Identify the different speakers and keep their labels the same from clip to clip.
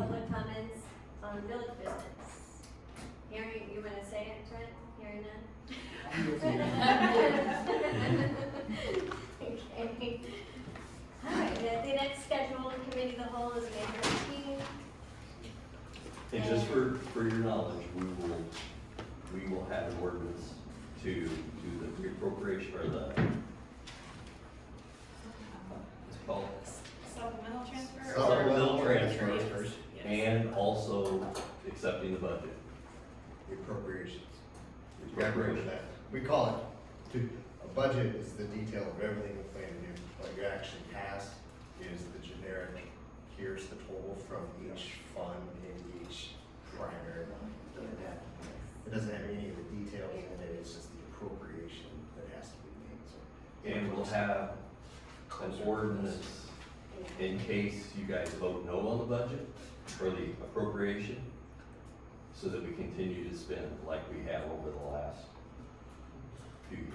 Speaker 1: on um, village business. Hearing, you wanna say it, Trent? Hearing none? Okay. Alright, the, the next scheduled committee of the whole is May thirteenth.
Speaker 2: And just for, for your knowledge, we will, we will have an ordinance to do the appropriation or the, it's called
Speaker 3: Supplemental transfer? or-
Speaker 2: supplemental
Speaker 4: Supplemental
Speaker 2: transfers
Speaker 4: transfers.
Speaker 3: Yes.
Speaker 2: and also accepting the budget.
Speaker 4: appropriations. You gotta remember that. We call it, to, a budget is the detail of everything we plan to do. What you actually pass is the generic, here's the total from each fund and each primary line. Doesn't have- It doesn't have any of the details in it, it's just the appropriation that has to be made, so.
Speaker 2: And we'll have an ordinance in case you guys vote no on the budget or the appropriation, so that we continue to spend like we have over the last few years.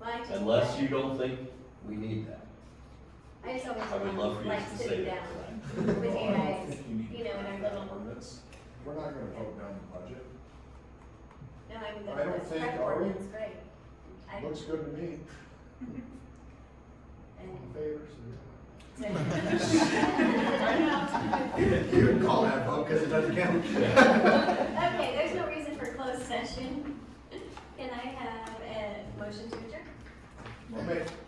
Speaker 1: Well, I just-
Speaker 2: Unless you don't think we need that.
Speaker 1: I just always
Speaker 2: I would love for you
Speaker 1: like
Speaker 2: to say
Speaker 1: sitting down
Speaker 2: that tonight.
Speaker 1: with you guys.
Speaker 5: You
Speaker 1: you know, in our little-
Speaker 5: We're not gonna vote down the budget.
Speaker 1: No, I mean, the,
Speaker 5: I don't
Speaker 1: the
Speaker 5: think,
Speaker 1: strike
Speaker 5: are we?
Speaker 1: ordinance, great. I,
Speaker 5: Looks good to me. All in
Speaker 1: and,
Speaker 5: favor,
Speaker 4: You would call that vote, cause it doesn't count.
Speaker 1: Okay, there's no reason for closed session. Can I have a motion to adjourn?
Speaker 5: say- I'll make-